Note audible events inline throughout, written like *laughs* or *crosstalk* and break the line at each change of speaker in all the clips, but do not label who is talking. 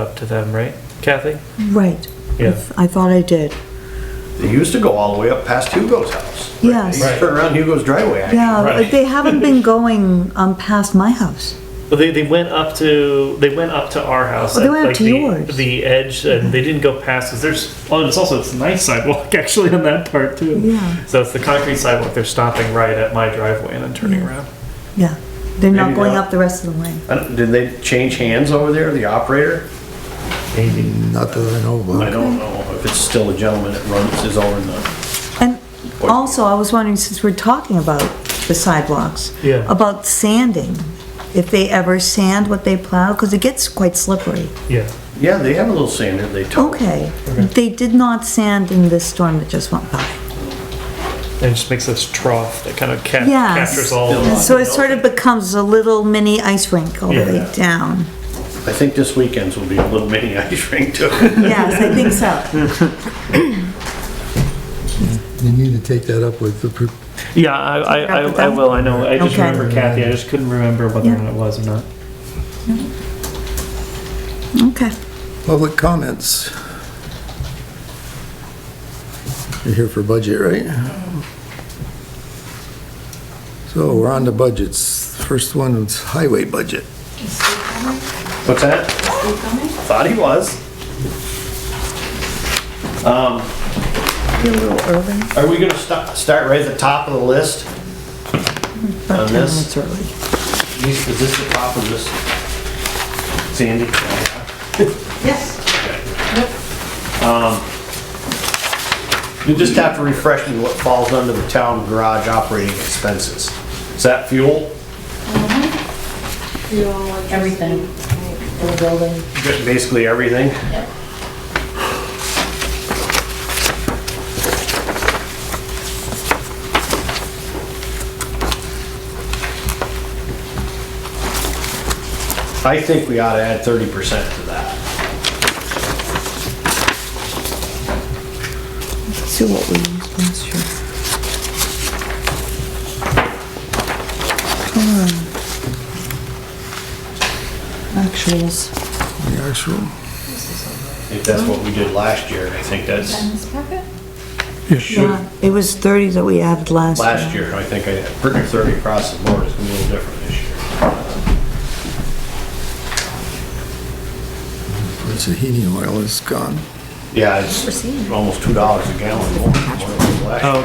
up to them, right, Kathy?
Right. I
Yeah.
th- I thought I did.
They used to go all the way up past Hugo's house.
Yes.
They used to turn around Hugo's driveway. actually.
Yeah, but
Right.
they haven't *laughs* been going um, past my house.
Well, they, they went up to they went up to our house.
Oh, they
at,
went up
like,
to
the,
yours.
The edge, and they didn't go past. Cause there's oh, and it's also it's a nice sidewalk *laughs* actually on that part too.
Yeah.
So it's the concrete sidewalk. They're stopping right at my driveway and then turning around.
Yeah. They're not
Maybe
going
not.
up the rest of the lane.
I don't- Did they change hands over there, the operator?
Maybe.
Not that I know
I
about.
don't know if it's still a gentleman that runs his own, uh,
And also, I was wondering, since we're talking about the sidewalks.
Yeah.
About sanding, if they ever sand what they plow, because it gets quite slippery.
Yeah.
yeah, they have a little sander they tow.
Okay. They did not sand in this storm that just went by.
And it just makes this trough that kind of ca-
Yes.
captures all.
Yeah.
Of
And so it sort of becomes a little mini ice rink all the way
Yeah.
down.
I think this weekend's will be a little mini *laughs* ice rink too.
*laughs* Yes, I think so.
You need to take that up with the, pro-
Yeah, I, I, I, I will. I know. I just
Okay.
remember Kathy. I just couldn't remember whether
Yeah.
or not it was or not.
*laughs* Okay.
public comments. You're here for budget, right? So we're on to budgets. First one is highway budget.
What's that? Thought he was.
You're a little early.
Are we gonna sta- start right at the top of the list?
About
On
10 minutes
this?
early.
Is is this the top of this? Sandy?
Yes,
You just have to refresh me what falls under the town garage operating expenses. Is that fuel?
everything. The building.
Just Basically everything? I think we ought to add thirty percent to that.
See what we used last year. Hold on. Actuals.
The actual,
If that's what we did last year, I think that's,
Yeah, It was 30 that we added last year.
last year, I think I, pretty thirty across the board, it's gonna be a little different this year.
where's the heating oil is gone.
Yeah, it's almost two dollars a gallon more than what it was last year.
Oh,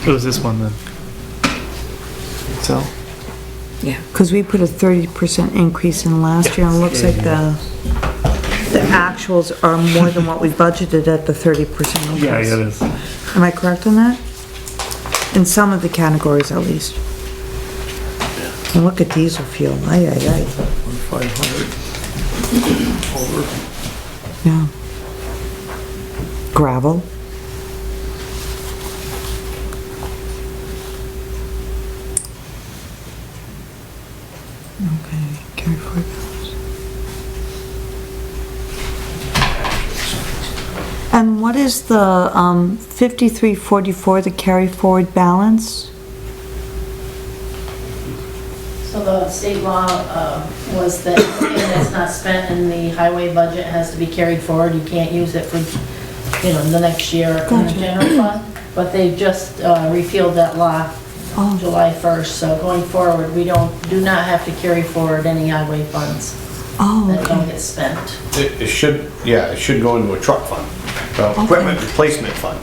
okay. It was this one then. So.
Yeah. Because we put a 30% increase in last year, and it looks like the, the actuals are more than what we budgeted at the 30% increase.
Yeah, yeah, it is.
Am I correct on that? In some of the categories at least. And look at diesel fuel, ay, ay, ay,
Five hundred.
yeah. Gravel, okay, carry forward. And what is the, um, fifty-three forty-four, the carry forward balance?
So the state law uh, was that anything that's not spent in the highway budget has to be carried forward. You can't use it for, you know, the next year in the
Gotcha.
general fund. But they just uh, repealed that law
Oh.
July 1st, so going forward, we don't, do not have to carry forward any highway funds
Oh,
that don't get spent.
It, it should, yeah, it should go into a truck fund, uh, equipment replacement fund.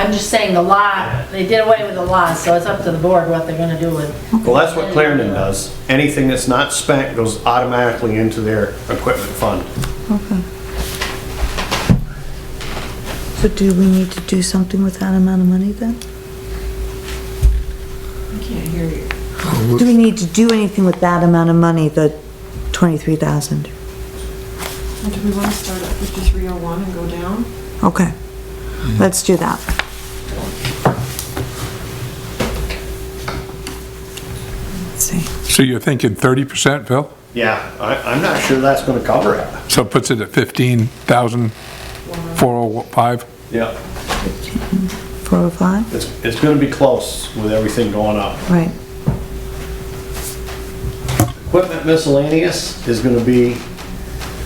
I'm just saying the law, they did away with the law, so it's up to the board what they're gonna do with
Well, that's what Clarendon does. Anything that's not spent goes automatically into their equipment fund.
So do we need to do something with that amount of money then? Do we need to do anything with that amount of money, the twenty-three thousand?
And do we want to start at 5301 and go down?
Okay, let's do that. Let's see.
So you're thinking 30%, Phil?
Yeah, I, I'm not sure that's gonna cover it.
So it puts it at 15,405?
Yeah.
Four oh five,
It's, it's gonna be close with everything going up.
right,
Equipment miscellaneous is gonna be